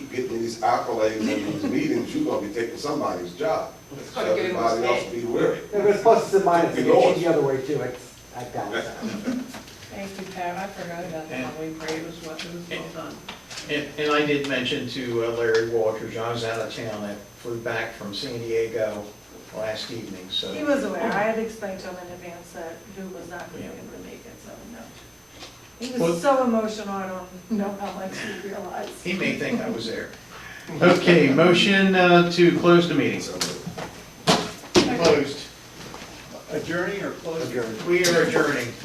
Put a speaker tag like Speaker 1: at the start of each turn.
Speaker 1: getting these accolades in these meetings, you're gonna be taking somebody's job. So
Speaker 2: gonna get him
Speaker 1: Everybody else
Speaker 2: upset.
Speaker 1: be wary.
Speaker 3: It was plus and minus, it goes
Speaker 1: Yours.
Speaker 3: the other way too, it's, I doubt that.
Speaker 2: Thank you, Pat, I forgot about the Halloween parade, it was what, it was well done.
Speaker 4: And, and I did mention to uh, Larry Walters, I was out of town, I flew back from San Diego last evening, so.
Speaker 2: He was aware, I had explained to him in advance that Lou was not gonna be able to make it, so no. He
Speaker 4: Well-
Speaker 2: was so emotional, I don't know how much he realized.
Speaker 4: He may think I was there. Okay, motion uh, to close the meeting.
Speaker 1: So,
Speaker 4: Closed.
Speaker 5: Adjourning or closing?
Speaker 4: We are adjourning.